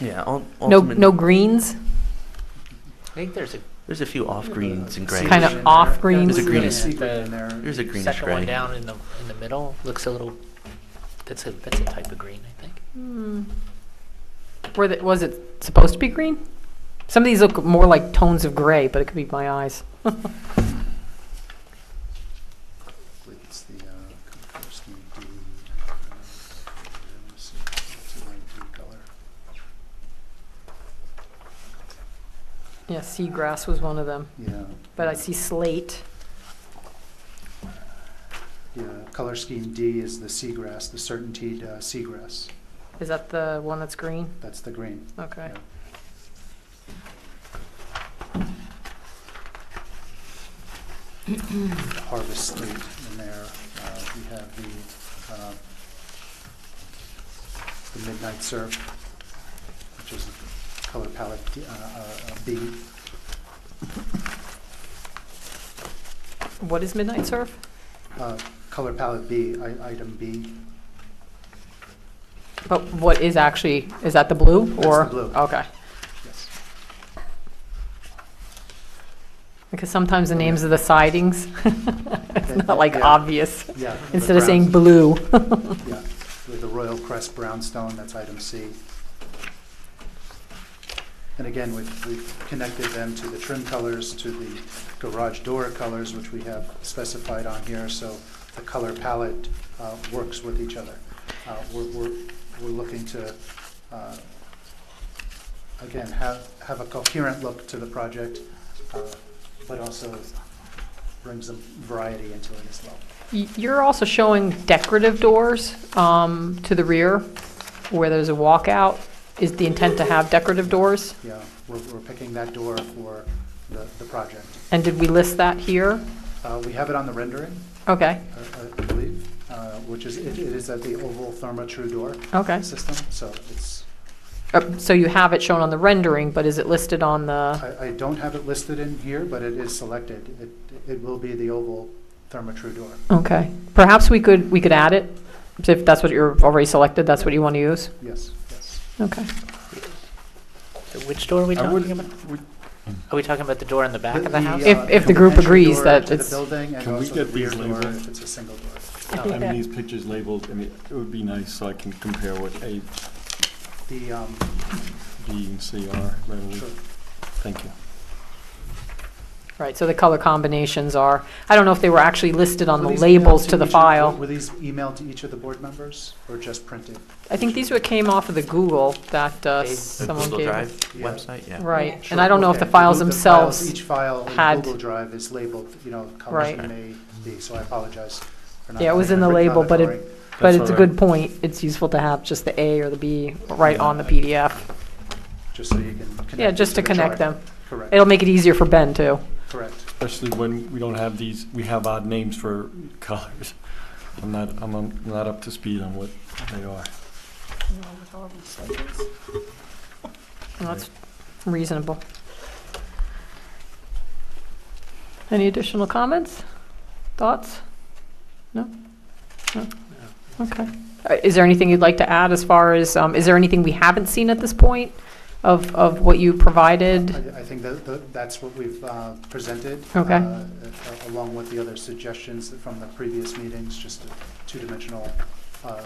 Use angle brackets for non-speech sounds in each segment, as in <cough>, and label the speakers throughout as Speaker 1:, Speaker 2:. Speaker 1: Yeah. ul-
Speaker 2: No,
Speaker 1: ultimate-
Speaker 2: no greens,
Speaker 3: I think there's a
Speaker 1: There's a few off greens and grays.
Speaker 2: Kind of off greens.
Speaker 1: There's a greenish-
Speaker 4: There's
Speaker 1: There's a greenish
Speaker 3: second one
Speaker 1: gray.
Speaker 3: down in the, in the middle, looks a little, that's a, that's a type of green, I think.
Speaker 2: Hmm. were the, was it supposed to be green? Some of these look more like tones of gray, but it could be my eyes.
Speaker 4: It's the uh, Kukovsky blue. uh, let me see, It's a light blue color.
Speaker 2: Yeah, seagrass was one of them,
Speaker 4: Yeah.
Speaker 2: but I see slate.
Speaker 4: Yeah, color scheme D is the seagrass, the certainty uh, seagrass.
Speaker 2: Is that the one that's green?
Speaker 4: That's the green.
Speaker 2: Okay.
Speaker 4: Yeah. The Harvest Street in there, uh, we have the, uh, the Midnight Surf, which is color palette D- uh, uh, uh, B.
Speaker 2: What is midnight surf?
Speaker 4: uh, Color palette B, I- item B.
Speaker 2: But what is actually, is that the blue
Speaker 4: That's the
Speaker 2: or?
Speaker 4: blue.
Speaker 2: Okay,
Speaker 4: Yes.
Speaker 2: because sometimes the names of the sidings, <laughs> it's not like
Speaker 4: Yeah.
Speaker 2: obvious.
Speaker 4: Yeah.
Speaker 2: Instead of saying blue, <laughs>
Speaker 4: Yeah, with the Royal Crest Brownstone, that's item C. And again, we've, we've connected them to the trim colors, to the garage door colors, which we have specified on here, so the color palette uh, works with each other. Uh, We're, we're, we're looking to, uh, again, have, have a coherent look to the project, uh, but also brings some variety into it as well.
Speaker 2: Y- You're also showing decorative doors um, to the rear where there's a walkout. Is the intent to have decorative doors?
Speaker 4: Yeah, we're, we're picking that door for the, the project.
Speaker 2: And did we list that here?
Speaker 4: Uh, we have it on the rendering,
Speaker 2: Okay,
Speaker 4: I, I believe, uh, which is, it, it is at the oval thermatrue door
Speaker 2: okay.
Speaker 4: system, so it's,
Speaker 2: Uh, So you have it shown on the rendering, but is it listed on the,
Speaker 4: I, I don't have it listed in here, but it is selected. It, it will be the oval thermatrue door.
Speaker 2: okay. Perhaps we could, we could add it, if that's what you're already selected, that's what you want to use?
Speaker 4: Yes, yes.
Speaker 2: Okay.
Speaker 3: So Which door are we
Speaker 5: I
Speaker 3: talking about?
Speaker 5: wouldn't, would-
Speaker 3: Are we talking about the door in the back of the house?
Speaker 2: If-
Speaker 4: uh,
Speaker 2: if the group
Speaker 4: entry
Speaker 2: agrees
Speaker 4: door
Speaker 2: that
Speaker 4: to the
Speaker 2: it's-
Speaker 4: building and
Speaker 5: Can we
Speaker 4: also
Speaker 5: get
Speaker 4: the rear
Speaker 5: these
Speaker 4: door
Speaker 5: labeled?
Speaker 4: if it's a single door.
Speaker 5: I mean, these pictures labeled, I mean, it would be nice so I can compare what A,
Speaker 4: The, um,
Speaker 5: B, and C are readily.
Speaker 4: sure.
Speaker 5: Thank you.
Speaker 2: Right, so the color combinations are, I don't know if they were actually listed on
Speaker 4: Were
Speaker 2: the
Speaker 4: these emailed
Speaker 2: labels to the
Speaker 4: each of-
Speaker 2: file.
Speaker 4: Were these emailed to each of the board members or just printed?
Speaker 2: I think these were, came off of the Google that uh,
Speaker 3: They-
Speaker 1: The
Speaker 2: someone
Speaker 1: Google
Speaker 2: gave. us.
Speaker 1: Drive
Speaker 4: Yeah.
Speaker 1: website, yeah.
Speaker 2: Right,
Speaker 4: Sure,
Speaker 2: and I don't know if the
Speaker 4: okay.
Speaker 2: files
Speaker 4: The files-
Speaker 2: themselves,
Speaker 4: Each file in
Speaker 2: had-
Speaker 4: Google Drive is labeled, you know,
Speaker 2: Right.
Speaker 4: colors may be, so I apologize. for not
Speaker 2: Yeah, it was
Speaker 4: having
Speaker 2: in the
Speaker 4: written
Speaker 2: label,
Speaker 4: on it
Speaker 2: but it-
Speaker 4: already.
Speaker 2: but
Speaker 5: That's
Speaker 2: it's a
Speaker 5: all right.
Speaker 2: good point. It's useful to have just the A or the B right
Speaker 5: Yeah.
Speaker 2: on the PDF.
Speaker 4: Just so you can connect.
Speaker 2: Yeah,
Speaker 4: it
Speaker 2: just to
Speaker 4: the
Speaker 2: connect
Speaker 4: chart.
Speaker 2: them.
Speaker 4: Correct,
Speaker 2: It'll make it easier for Ben,
Speaker 4: <laughs>
Speaker 2: too.
Speaker 4: correct.
Speaker 5: Especially when we don't have these, we have odd names for <laughs> colors. I'm not, I'm um, not up to speed on what they are.
Speaker 2: That's reasonable. Any additional comments? Thoughts? No? No? Okay. Uh, Is there anything you'd like to add as far as, um, is there anything we haven't seen at this point of, of what you provided?
Speaker 4: I I think that, that- that's what we've uh, presented.
Speaker 2: Okay.
Speaker 4: uh, a- Along with the other suggestions from the previous meetings, just a two-dimensional uh, uh,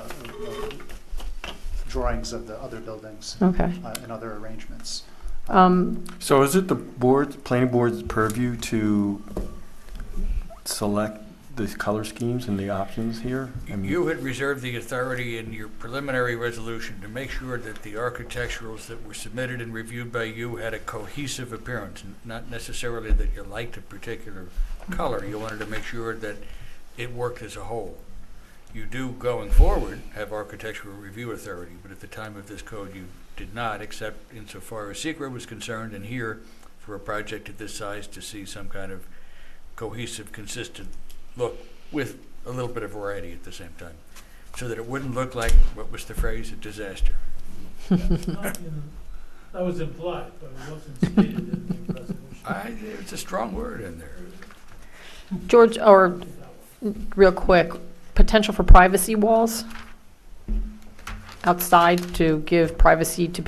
Speaker 4: drawings of the other buildings
Speaker 2: Okay.
Speaker 4: uh, and other arrangements.
Speaker 2: Um,
Speaker 5: So is it the board, planning board's purview to select the color schemes and the options here? I mean,
Speaker 6: You had reserved the authority in your preliminary resolution to make sure that the architecturals that were submitted and reviewed by you had a cohesive appearance, n- not necessarily that you liked a particular color. You wanted to make sure that it worked as a whole. You do, going forward, have architectural review authority, but at the time of this code, you did not, except insofar as secret was concerned, and here, for a project of this size, to see some kind of cohesive, consistent look with a little bit of variety at the same time, so that it wouldn't look like, what was the phrase, a disaster.
Speaker 7: That was implied, but it wasn't stated in the resolution.
Speaker 6: I, it's a strong word in there.
Speaker 2: George, or real quick, potential for privacy walls outside to give privacy to people